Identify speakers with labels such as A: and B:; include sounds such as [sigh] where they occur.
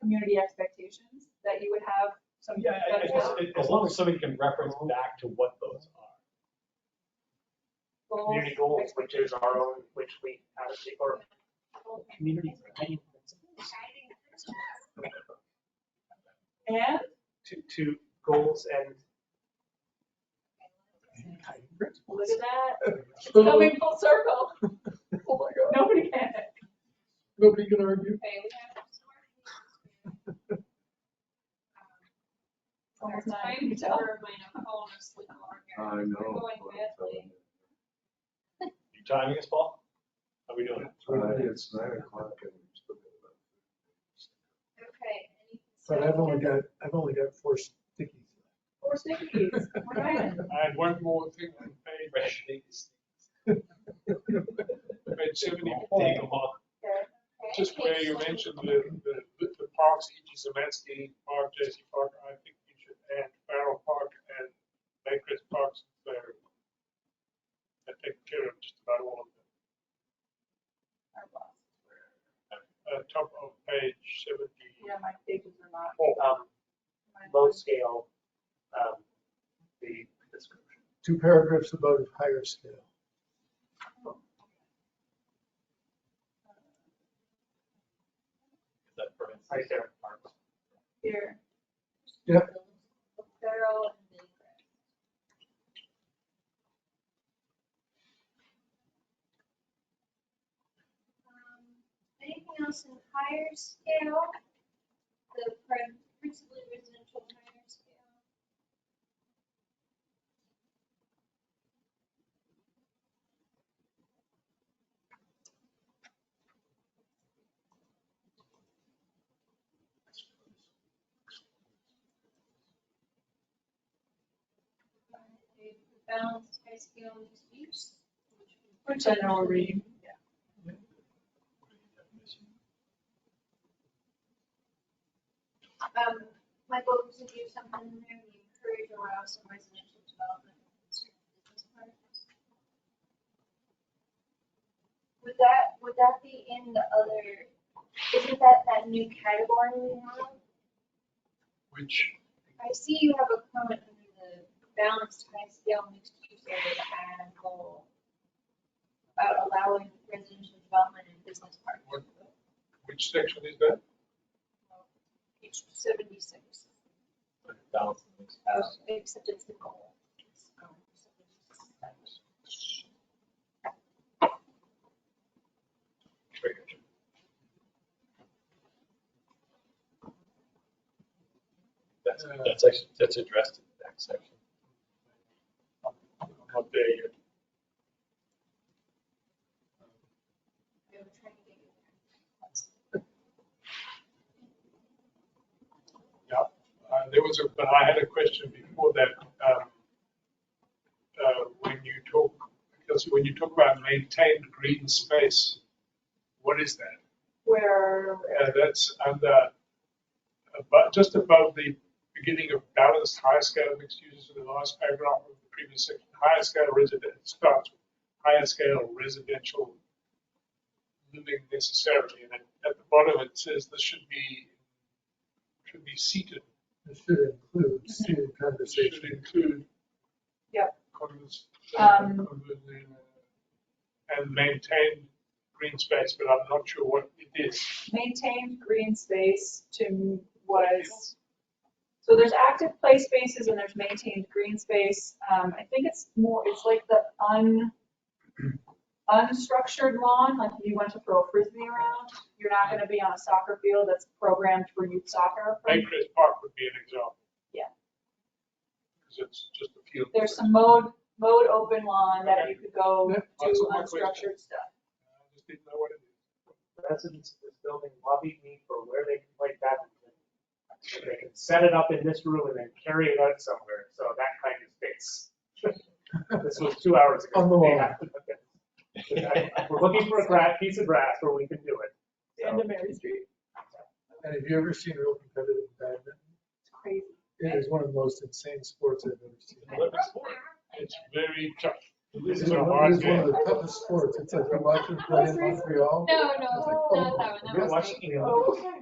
A: community expectations that you would have some.
B: Yeah, I- I
A: that's
B: guess,
A: not
B: as- as long as somebody can reference back to what those are.
A: goals,
C: community goals, which is our own, which we have, to- or community retaining principles.
A: And
C: To, to goals and.
A: look at that, coming
D: Nobody
A: [laughs] full [laughs] circle,
D: oh my God.
A: nobody can.
D: Nobody can argue.
A: Almost done.
E: I'm
A: You can tell.
E: over my alcohol and sleep
D: Uh,
F: I
E: I'm going badly.
B: You timing us, Paul? How we doing?
F: It's nine o'clock and we're still
E: Okay.
D: But I've only got, I've only got four stickies.
A: Four stickies, we're [laughs] done.
G: I had one more thing on page, [laughs] page
B: Take
G: seventy-four,
B: them off.
G: just where you mentioned the, the, the parks, E.G. Zemetzky Park, Jesse Park, I think you should add Farrell Park and Lakers Parks there. I take care of just about all of them. Uh, top of page
A: Yeah,
G: seventy-four.
A: my pages are not.
C: Um, low scale, um, the description.
D: Two paragraphs above higher scale.
B: Is that for instance?
C: Right there. Mark.
A: Here.
D: Yep.
A: Feral and vagrant.
E: Um, Anything else in higher scale? The prin- principally residential higher scale? A Balanced high scale mixed use?
A: For general reading.
E: Um, Michael, was it you something in there, we encourage or allow some residential development in certain business parks? Would that, would that be in the other, isn't that that new category we have?
G: Which,
E: I see you have a comment under the balanced high scale mixed use area and goal about allowing residential development in business parks.
G: what, which section is that?
E: Page seventy-six.
B: Balance.
E: Oh, except it's the goal.
B: That's, that's actually, that's addressed in the next section.
G: I'm Not there yet. Uh, There was a, but I had a question before that. um, uh, When you talk, because when you talk about maintained green space, what is that?
A: Where,
G: Uh, That's under, about, just above the beginning of balanced high scale mixed uses in the last paragraph of the previous section. Higher scale resident, starts with higher scale residential living necessarily. And at- at the bottom, it says this should be, should be seated
D: This should include seated
G: should
D: conversation.
G: include.
A: Yep.
G: condos,
A: Um,
G: condos, uh, And maintain green space, but I'm not sure what it is.
A: maintained green space to was, so there's active play spaces and there's maintained green space. Um, I think it's more, it's like the un, unstructured lawn, like if you went to throw a frisbee around, you're not gonna be on a soccer field that's programmed for youth soccer.
G: Acreage Park would be an example.
A: Yeah.
G: Because it's just a field.
A: There's some mowed, mowed open lawn that you could go do unstructured stuff.
G: I just didn't know what it is.
C: Residents of this building lobbied me for where they can play badminton. And They can set it up in this room and then carry it out somewhere, so that kind of space. [laughs] This was two hours ago.
D: On the wall.
C: Yeah. We're looking for a gra- piece of grass where we can do it.
A: The end of Mary Street.
D: And have you ever seen real competitive badminton?
A: It's crazy.
D: It is one of the most insane sports I've ever seen.
B: Olympic sport.
G: It's very tough. This
D: It's
G: is a
D: one
G: hard
D: of
G: game.
D: the toughest sports. It's like you watch them play in Montreal.
E: No, no, not that one, that
D: It's like, oh,
E: was
D: yeah.
E: me.
C: Watching the
A: Oh, okay.